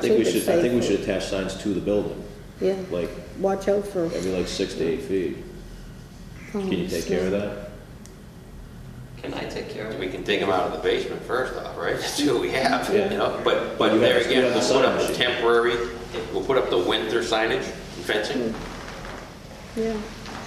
I think we Keep it should, I think we safe. should attach signs to the building, Yeah, like, watch out for. every like six to eight feet. Can you take care of that? Can I take care of it? We can dig them out of the basement first off, right? That's what we have, you Yeah. know? But, but You have- there you again, have the we'll put sign up the machine. temporary, we'll put up the winter signage and fencing. Yeah,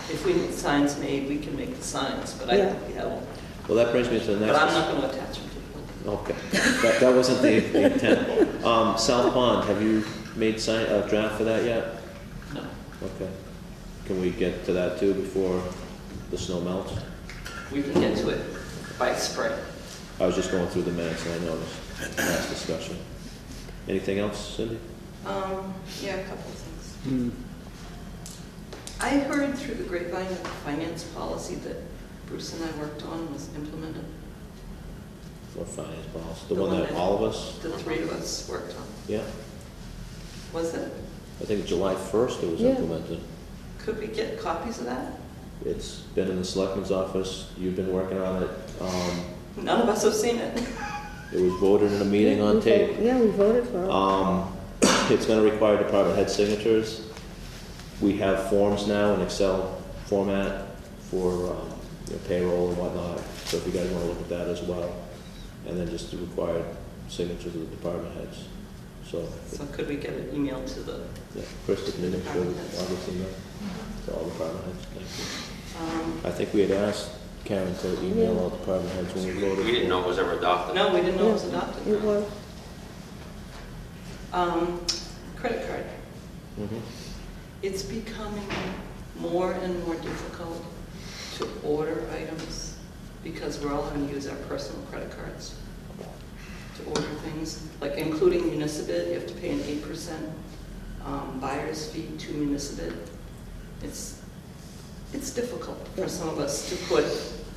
If we need signs made, we can make the signs, but I Yeah. think we have them. Well, that brings me to the But I'm next, not gonna attach them to the building. okay, that, that wasn't the the intent. Um, South Pond, have you made sign, a draft for that yet? No. Okay. Can we get to that too before the snow melts? We can get to it by spring. I was just going through the minutes and I noticed, last discussion. Anything else, Cindy? Um, yeah, a couple of things. Hmm. I heard through the grapevine that the finance policy that Bruce and I worked on was implemented, Or finance policy, the one that all of us, the three of us worked on. yeah? Was it? I think July first it was Yeah. implemented. Could we get copies of that? It's been in the selectman's office, you've been working on it, um, None of us have seen it. it was voted in a meeting Yeah, on we tape. vote- Yeah, we voted for it. Um, it's gonna require department head signatures. We have forms now in Excel format for, um, you know, payroll and whatnot, so if you guys wanna look at that as well. And then just the required signatures of the department heads, so, So could we get an email to the, yeah, Chris did an initial, Department heads. obviously, to all department heads, thank Um, you. I think we had asked Karen to email all department heads when we voted. We didn't know it was ever adopted. No, we didn't know it was Yeah, adopted. It was, Um, credit card. Mhm. It's becoming more and more difficult to order items because we're all having to use our personal credit cards to order things, like including Municipal, you have to pay an eight percent um, buyer's fee to Municipal. It's, it's difficult for some of us to put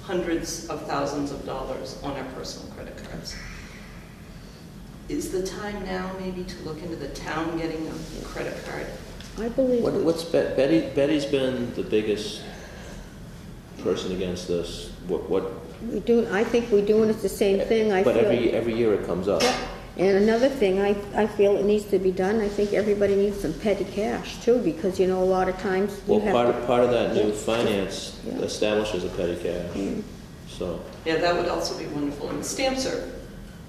hundreds of thousands of dollars on our personal credit cards. Is the time now maybe to look into the town getting a credit card? I believe, What, we- what's Be- Betty? Betty's been the biggest person against this. What? What? we do, I think we're doing it the same thing, I feel. but every every year it comes up. Yeah. And another thing, I, I feel it needs to be done, I think everybody needs some petty cash too, because you know, a lot of times you Well, have. part to- of, part of that new Yeah. finance Yeah. Mm-hmm. establishes a petty cash. So Yeah, that would also be wonderful. And stamps are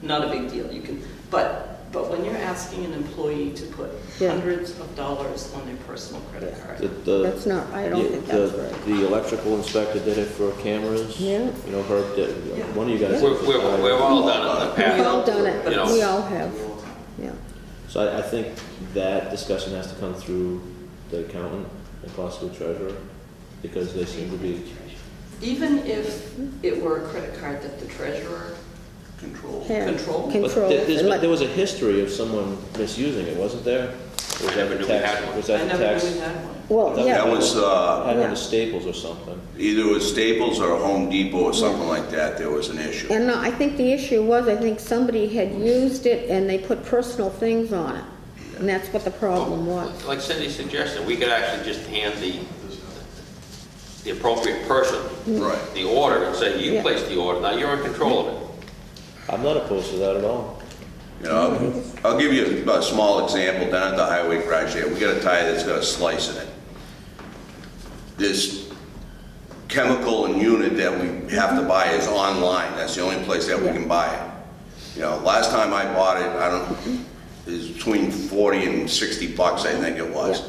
not a big deal. You can, but, but when you're asking an employee to put Yeah. hundreds of dollars on their personal credit the, card, the That's not, I don't the, think the, that's right. the electrical inspector did it for cameras. Yeah. You know, Herb did. Yeah. One of you guys. We're, did for we're, fire. we're all done it in the We've past. all done it, You know. we all have, yeah. So I, I think that discussion has to come through the accountant and possibly treasurer because they seem to be. even if it were a credit card that the treasurer controlled, Yeah. controlled, Can- But Control there- there's been- elec- there was a history of someone misusing it, wasn't there? Was I that never the knew we tax- had one. Was that I the never tax? knew we had one. Well, That yeah, was, uh, Had one Yeah. of Staples or something. either it was Staples or Home Depot or something like that, there was an issue. and no, I think the issue was, I think somebody had used it and they put personal things on it, and that's what the problem was. Like Cindy suggested, we could actually just hand the, the appropriate person Right. the order and say, Yeah. you place the order, now you're in control of it. I'm not opposed to that at all. You know, I'll give you a small example down at the highway garage there. We got a tire that's got a slice in it. This chemical and unit that we have to buy is online. That's the only place that we can buy it. You know, last time I bought it, I don't, it was between 40 and 60 bucks, I think it was.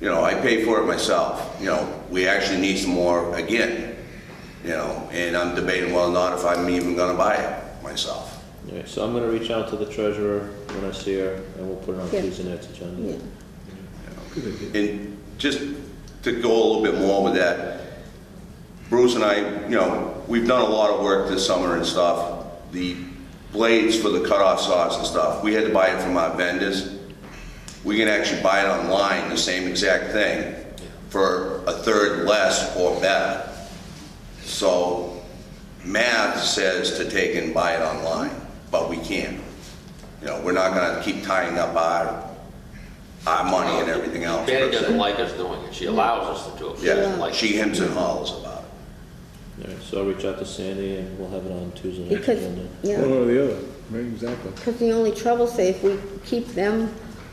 You know, I paid for it myself. You know, we actually need some more again. You know, and I'm debating whether or not if I'm even gonna buy it myself. All right, so I'm gonna reach out to the treasurer when I see her, and we'll put it on Yeah. Tuesday night's Yeah, agenda. And just to go a little bit more with that, Bruce and I, you know, we've done a lot of work this summer and stuff. The blades for the cutoff saws and stuff, we had to buy it from our vendors. We can actually buy it online, the same exact thing, for a third less or better. So math says to take and buy it online, but we can't. You know, we're not gonna keep tying up our, our money and everything else. per Betty se. doesn't like us doing it, she allows us to do it. She doesn't Yeah, like she hems and hollers about it. All right, so I'll reach out to Sandy, and we'll have it on Tuesday night's because, agenda. yeah. One or the other, right, exactly. Because the only trouble, say, if we keep them